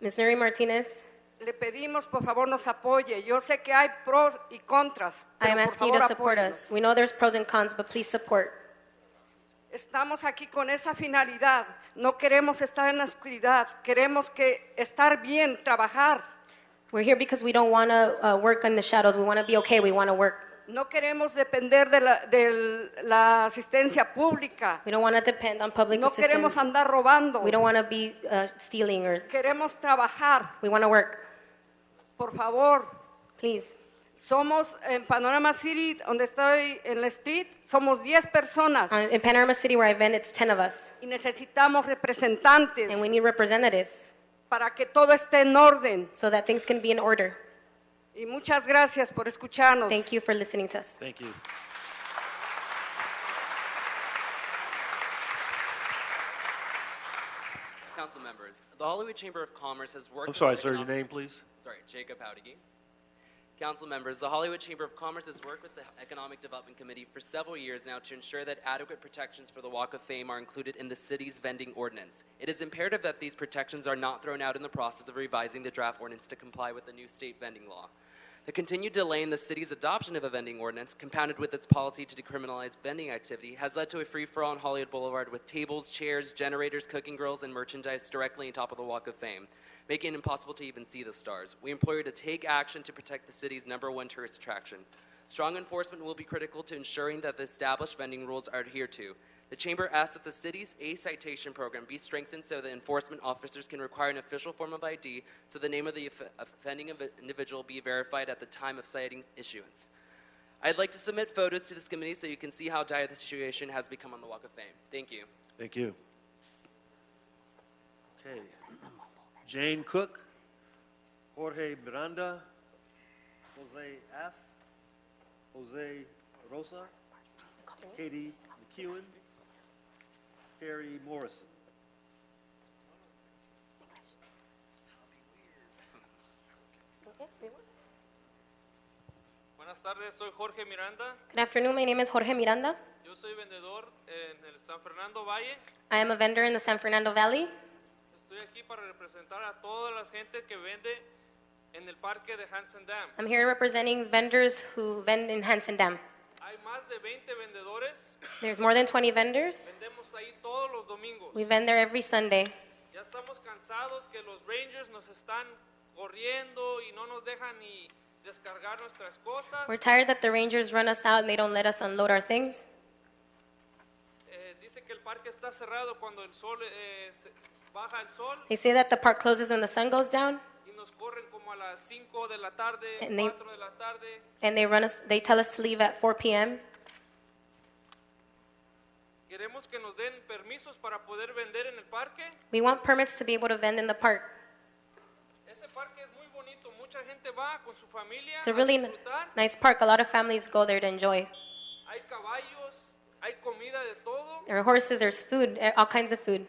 Ms. Nuri Martinez, Le pedimos, por favor, nos apoye. Yo sé que hay pros y contras, I pero am por asking you favor, to support us. apóyenos. We know there's pros and cons, but please support. Estamos aquí con esa finalidad. No queremos estar en la oscuridad. Queremos que estar bien, trabajar. We're here because we don't want to uh, work in the shadows. We want to be okay. We want to work. No queremos depender de la, de la asistencia pública. We don't want to depend on public No assistance. queremos andar robando. We don't want to be uh, stealing or Queremos trabajar. we want to work. Por favor, Please. Somos en Panorama City, donde estoy en la street, somos 10 personas Uh, in Panorama City, where I vent, it's 10 of us, y necesitamos representantes and we need representatives para que todo esté en orden. so that things can be in order. Y muchas gracias por escucharnos. Thank you for listening to us. Thank you. Council members, the Hollywood Chamber of Commerce has worked. I'm sorry, with the sir, your economic- name, please? Sorry, Jacob Howdige. Council members, the Hollywood Chamber of Commerce has worked with the Economic Development Committee for several years now to ensure that adequate protections for the Walk of Fame are included in the city's vending ordinance. It is imperative that these protections are not thrown out in the process of revising the draft ordinance to comply with the new state vending law. The continued delay in the city's adoption of a vending ordinance, compounded with its policy to decriminalize vending activity, has led to a free for all on Hollywood Boulevard with tables, chairs, generators, cooking grills, and merchandise directly on top of the Walk of Fame, making it impossible to even see the stars. We implore you to take action to protect the city's number one tourist attraction. Strong enforcement will be critical to ensuring that the established vending rules are adhered to. The Chamber asks that the city's A citation program be strengthened so that enforcement officers can require an official form of ID so the name of the off- offending inv- individual be verified at the time of citing issuance. I'd like to submit photos to this committee so you can see how dire the situation has become on the Walk of Fame. Thank you. Thank you. Okay. Jane Cook, Jorge Miranda, Jose F., Jose Rosa, Katie McEwen, Terry Morrison. Good Buenas tardes, soy Jorge Miranda. afternoon. My name is Jorge Miranda. Yo soy vendedor en el San Fernando Valle. I am a vendor in the San Fernando Valley. Estoy aquí para representar a toda la gente que vende en el parque de Hansen Dam. I'm here representing vendors who vend in Hanson Dam. Hay más de 20 vendedores. There's more than 20 vendors. Vendemos ahí todos los domingos. We vend there every Sunday. Ya estamos cansados que los Rangers nos están corriendo y no nos dejan ni descargar nuestras cosas. We're tired that the Rangers run us out and they don't let us unload our things. Eh, dice que el parque está cerrado cuando el sol eh, se- baja el sol They say that the park closes when the sun goes down y nos corren como a las 5 de la tarde, And they- 4 de la tarde. and they run us they tell us to leave at 4 p.m. Queremos que nos den permisos para poder vender en el parque. We want permits to be able to vend in the park. Ese parque es muy bonito, mucha gente va con su familia It's a a really n- disfrutar. nice park. A lot of families go there to enjoy. Hay caballos, hay comida de todo There are horses, there's food, eh, all kinds of food.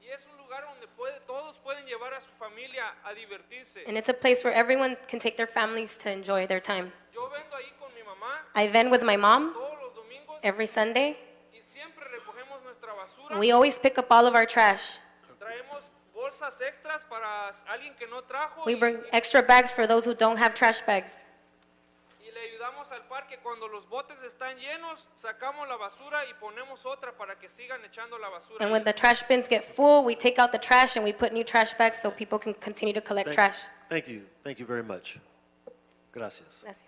y es un lugar donde puede, todos pueden llevar a su familia a divertirse. And it's a place where everyone can take their families to enjoy their time. Yo vendo ahí con mi mamá I vend with my mom todos los domingos every Sunday. y siempre recogemos nuestra basura. We always pick up all of our trash. Traemos bolsas extras para alguien que no trajo We y, bring extra bags for those who don't have trash bags. y le ayudamos al parque. Cuando los botes están llenos, sacamos la basura y ponemos otra para que sigan echando la basura. And ahí. when the trash bins get full, we take out the trash and we put new trash bags so people can continue to collect Thank- trash. Thank you, thank you very much. Gracias. Gracias.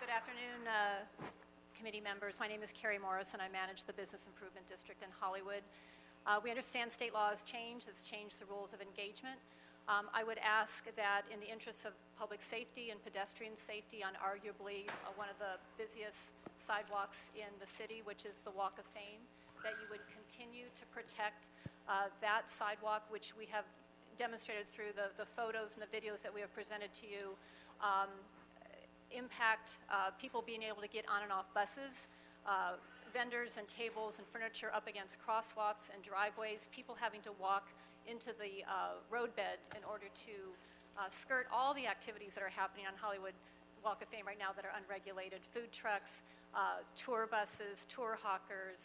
Good afternoon, uh, committee members. My name is Carrie Morris, and I manage the Business Improvement District in Hollywood. Uh, We understand state law has changed, has changed the rules of engagement. Um, I would ask that in the interests of public safety and pedestrian safety on arguably uh, one of the busiest sidewalks in the city, which is the Walk of Fame, that you would continue to protect uh, that sidewalk, which we have demonstrated through the the photos and the videos that we have presented to you, um, impact uh, people being able to get on and off buses, uh, vendors and tables and furniture up against crosswalks and driveways, people having to walk into the uh, roadbed in order to uh, skirt all the activities that are happening on Hollywood Walk of Fame right now that are unregulated, food trucks, uh, tour buses, tour hawkers,